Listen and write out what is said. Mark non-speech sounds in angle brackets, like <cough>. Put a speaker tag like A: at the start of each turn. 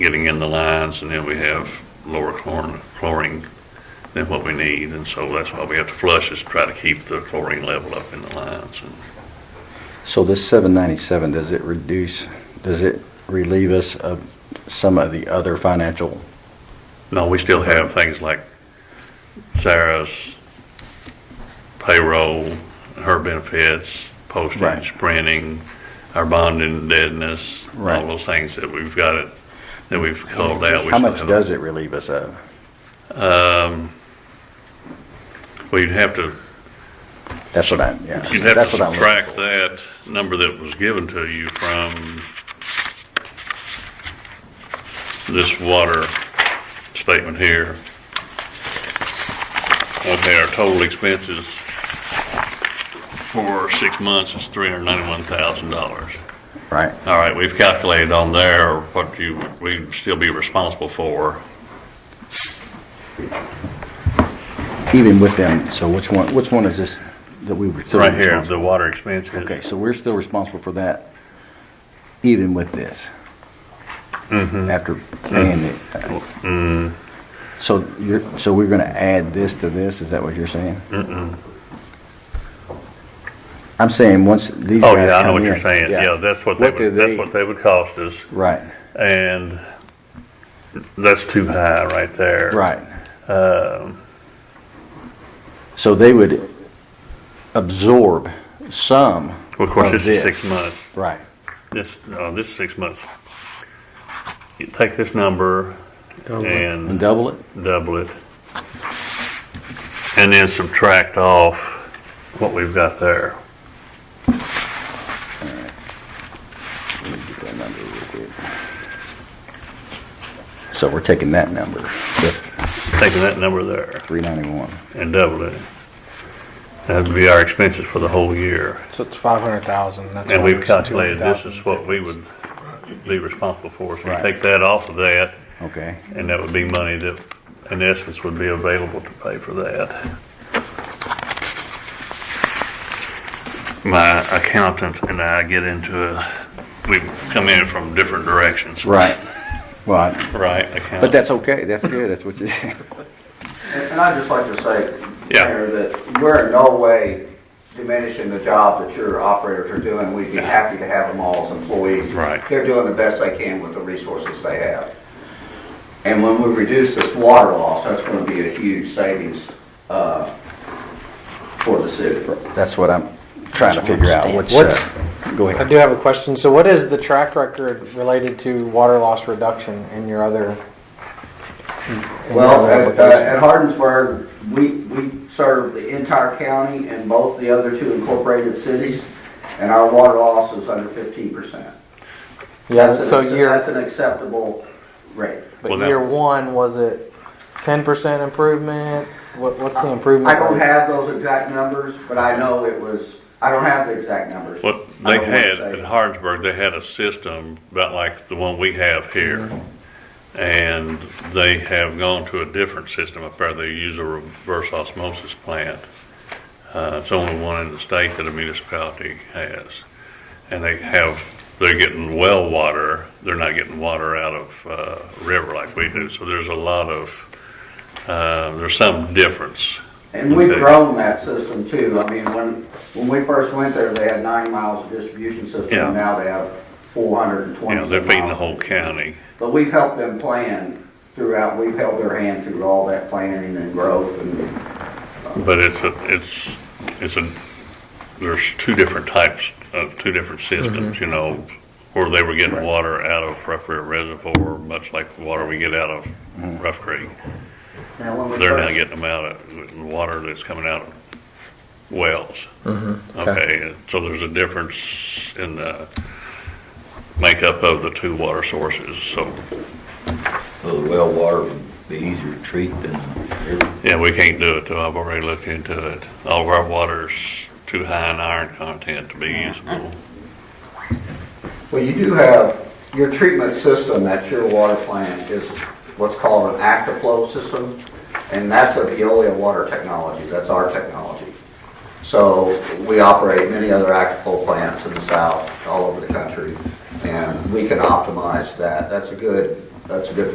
A: getting in the lines, and then we have lower chlor- chlorine than what we need, and so that's why we have to flush is try to keep the chlorine level up in the lines. And
B: So this 797, does it reduce, does it relieve us of some of the other financial?
A: No, we still have things like Sarah's payroll, her benefits, postage,
B: Right.
A: printing, our bonding deadness, all
B: Right.
A: those things that we've got it, that we've called out.
B: How much does it relieve us of?
A: Well, you'd have to,
B: That's what I'm, yeah.
A: you'd have to
B: That's what I'm looking
A: subtract that number that was given to you from this water statement here. Okay, our total expenses for six months is three hundred ninety-one thousand dollars.
B: for, Right,
A: All right, we've calculated on there what you, we'd still be responsible for.
B: even with them, so which one, which one is this that we were? still
A: Right here,
B: responsible-
A: the water expenses.
B: Okay, so we're still responsible for that even with this?
A: Mm-hmm.
B: After paying it? So you're, so we're gonna add this to this, is that what you're saying? Mm-mm. I'm saying, once these guys
A: Oh,
B: come in.
A: yeah, I know what you're saying. Yeah, that's what they
B: do
A: would, that's what they would cost us.
B: Right,
A: And that's too high right there.
B: right.
A: Um.
B: So they would absorb some
A: Of course,
B: of
A: this is six
B: this.
A: months.
B: Right,
A: This, no, this is six months. You take this number
B: and
A: and
B: double it?
A: double it. And then subtract off what we've got there.
B: Let me get that number real quick. So we're taking that number, the
A: Taking that number there.
B: 391.
A: and double it. That'd be our expenses for the whole year.
C: So it's five hundred thousand.
A: And we've calculated this is what we would be responsible for. So you
B: Right.
A: take that off of that,
B: Okay,
A: and that would be money that, in essence, would be available to pay for that. My accountant and I get into a, we come in from different directions.
B: right. Well, I-
A: Right,
B: but
A: accountant.
B: that's okay, that's good, that's what you, <laughs>
D: And I'd just like to say,
A: Yeah.
D: Mayor, that we're in no way diminishing the job that your operators are doing. We'd be happy to have them all as employees.
A: Right.
D: They're doing the best they can with the resources they have. And when we reduce this water loss, that's going to be a huge savings uh, for the city.
B: that's what I'm trying to figure out, what's,
C: What's-
B: uh, go
C: I
B: ahead.
C: do have a question. So what is the track record related to water loss reduction in your other? in your
D: Well,
C: other
D: at, uh, at
C: applications?
D: Hardensburg, we, we serve the entire county and both the other two incorporated cities, and our water loss is under fifteen percent.
C: Yeah,
D: That's an
C: so
D: acce-
C: year,
D: That's an acceptable rate.
C: but
A: Well, that-
C: year one, was it ten percent improvement? What, what's the improvement?
D: I don't
C: rate?
D: have those exact numbers, but I know it was, I don't have the exact numbers.
A: What
D: I
A: they
D: don't wanna
A: had
D: say.
A: at Hardsburg, they had a system about like the one we have here.
D: Mm-hmm.
A: And they have gone to a different system up there. They use a reverse osmosis plant. Uh, it's only one in the state that a municipality has. And they have, they're getting well water. They're not getting water out of, uh, river like we do. So there's a lot of, uh, there's some difference.
D: And we've
A: Okay.
D: grown that system too. I mean, when, when we first went there, they had ninety miles of distribution system,
A: Yeah.
D: and now they have four hundred and
A: You
D: twenty.
A: know, they're feeding the whole county.
D: But we've helped them plan throughout, we've held their hand through all that planning and growth and,
A: But it's a, it's, it's a, there's two different types of, two different systems, you know, where they were getting water out of Rough Creek Reservoir, much like the water we get out of Rough Creek.
D: now when we
A: They're now
D: first,
A: getting them out of, water that's coming out of wells. Okay, and so there's a difference in the makeup of the two water sources, so,
E: Well, the well water would be easier to treat than river.
A: yeah, we can't do it, though, I've already looked into it. All of our water's too high in iron content to be usable.
D: well, you do have, your treatment system at your water plant is what's called an active-flow system, and that's a Veolia water technology, that's our technology. So we operate many other active-flow plants in the south, all over the country, and we can optimize that. That's a good That's a good